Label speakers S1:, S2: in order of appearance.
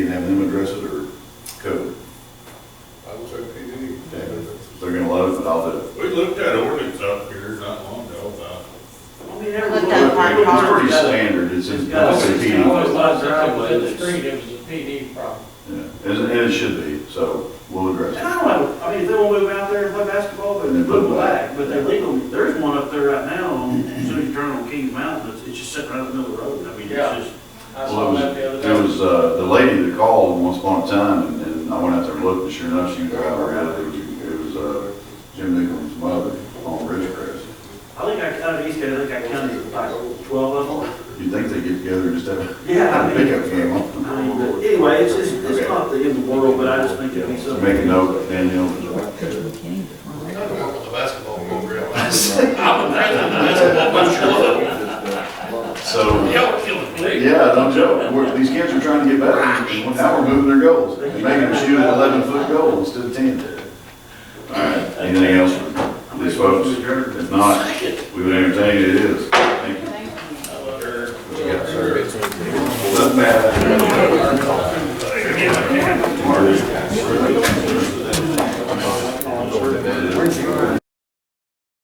S1: it's, in-
S2: Yeah,
S1: it's a
S2: it
S1: PD.
S2: was
S1: problem.
S2: not driveway in the street, it was a PD problem.
S1: Yeah, And, and it should be, so we'll address it.
S3: And I don't know, I mean, if they wanna move out there and play basketball, they
S1: Then
S3: can move
S1: put it back.
S3: back, but they're legal, there is one up there right now, on- as soon as you turn on Kings Mountain, it's, it's just sitting right in the middle of the road, I mean, it's
S2: Yeah.
S3: just,
S2: I
S1: Well,
S2: saw
S1: it was-
S2: that the other
S1: It
S2: day.
S1: was, uh, the lady that called once upon a time, and, and I went out there and looked, and sure enough, she was driving around, it was, it was, uh, Jim Nichols' mother on Ridgecrest.
S3: I think I counted East County, I think I counted like twelve of them.
S1: You'd think they'd get together and just have a
S3: Yeah, I mean,
S1: pickup game on.
S3: I mean, but anyway, it's, it's, it's not the end of the world, but I just think it'd be
S1: So
S3: something.
S1: Make a note, Daniel,
S4: Kind of work with the basketball program.
S1: so.
S4: Y'all killing me.
S1: Yeah, no joke. We're, these kids are trying to get better. Now we're moving their goals. They're Making them shoot an eleven foot goal instead of ten. All right, anything else from these folks? If not, we would entertain it is. Thank you. What you got, sir? Doesn't matter. Marty,